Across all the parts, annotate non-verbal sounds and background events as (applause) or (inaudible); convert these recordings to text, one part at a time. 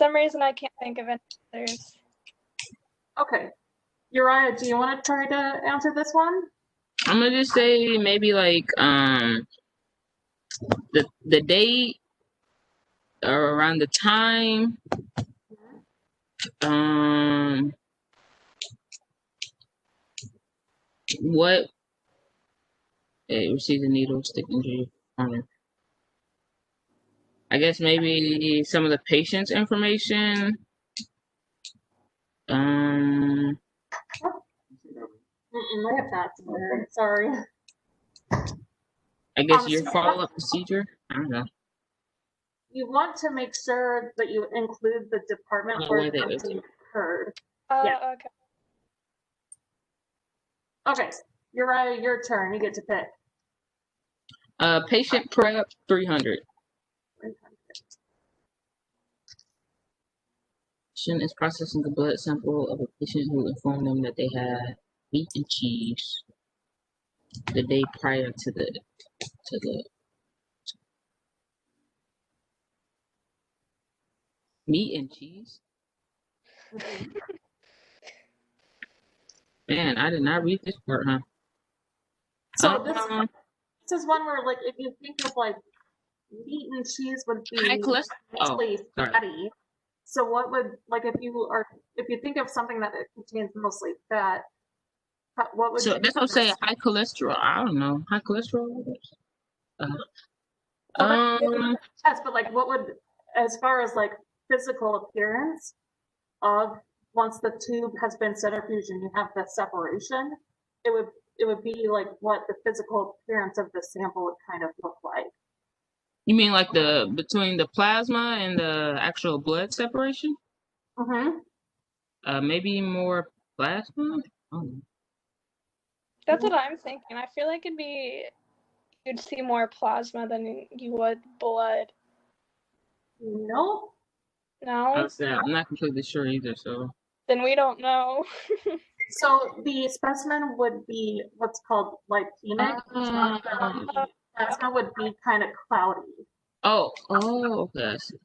some reason I can't think of any others. Okay. Uriah, do you want to try to answer this one? I'm gonna just say maybe like um the the date or around the time. Um what it received a needle stick injury on I guess maybe some of the patient's information. Um Mm-mm, I have not. seen her. Sorry. I guess Um, your so- follow up procedure. I don't know. You want to make sure that you include the department Yeah, where where they- something occurred. Oh, Yeah. okay. Okay, Uriah, your turn. You get to pick. Uh, patient prep three hundred. Patient is processing a blood sample of a patient who informed them that they had meat and cheese the day prior to the to the meat and cheese. Man, I did not read this part, huh? So this, Um, this is one where like if you think of like meat and cheese would be high cholesterol. Oh, mostly sorry. fatty. So what would like if you are if you think of something that it contains mostly fat, ho- what would So you that's what I'm saying. High cholesterol. I don't know. High cholesterol. Uh, Well, that's- um, Yes, but like what would, as far as like physical appearance of, once the tube has been centrifuged and you have the separation, it would, it would be like what the physical appearance of the sample would kind of look like. you mean like the between the plasma and the actual blood separation? Mm-hmm. Uh, maybe more plasma. Oh, That's what I'm thinking. I feel like it'd be you'd see more plasma than you would blood. Nope. No, I'm sad. I'm not completely sure either. So then we don't know. (laughs) So the specimen would be what's called lipemic. Ah. Plasma would be kind of cloudy. oh oh okay. I see.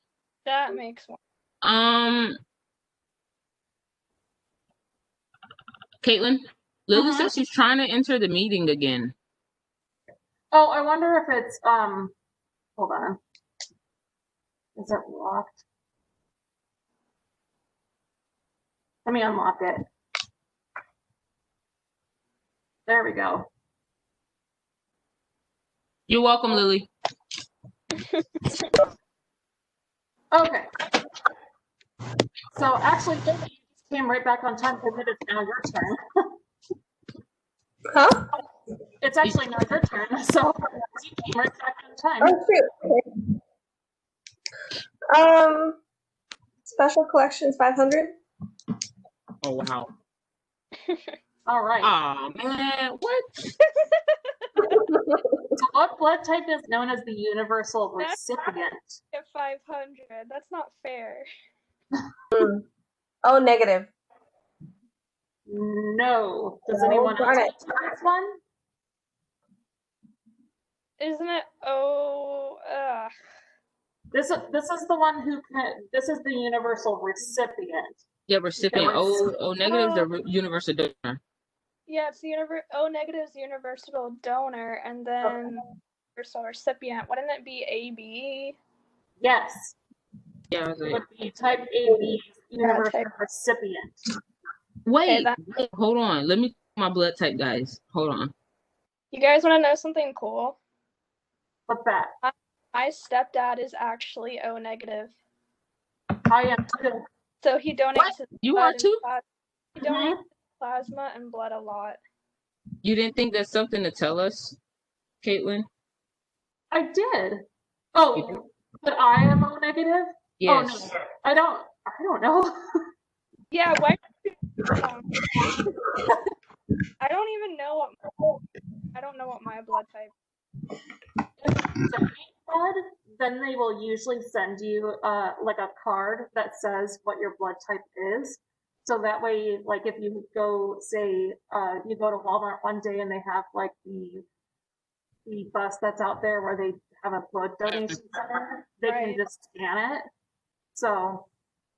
That makes more. Um, Caitlin, Lily Mhm. says she's trying to enter the meeting again. Oh, I wonder if it's, um, hold on. Is it locked? Let me unlock it. There we go. You're welcome, Lily. Okay. So actually, Vicky, you just came right back on time because it is now your turn. Huh? It's actually now your turn, so you came right back on time. Oh, shoot. Okay. Um, special collections 500. Oh wow. All right. Oh man, what? (laughs) So what blood type is known as the universal That's- recipient? At 500, that's not fair. Oh, negative. No. Does No, anyone else darn want to take this one? Isn't it? Oh, ugh. This is this is the one who can, this is the universal recipient. Yeah, recipient. was- O O negative, the re- universal donor. yeah, it's the univer- O negative's universal donor, and then universal recipient. Wouldn't it be AB? Yes, Yeah. I was it like, would be type AB universal type- recipient. wait, that- wait, hold on. Let me check my blood type, guys. Hold on. You guys want to know something cool? What's that? My stepdad is actually O negative, I am too. so he donates What? his You blood are and too. plas- he Mhm. donates his plasma and blood a lot. You didn't think that's something to tell us, Caitlin? I did. Oh, but I am O negative? Yes. Oh, no. I don't, I don't know. (laughs) Yeah, why? Um, I don't even know what I don't know what my blood type. If you blood, Then they will usually send you, uh, like a card that says what your blood type is. So that way, like if you go, say, uh, you go to Walmart one day and they have like the, the bus that's out there where they have a blood donation center, they can Right. just scan it. So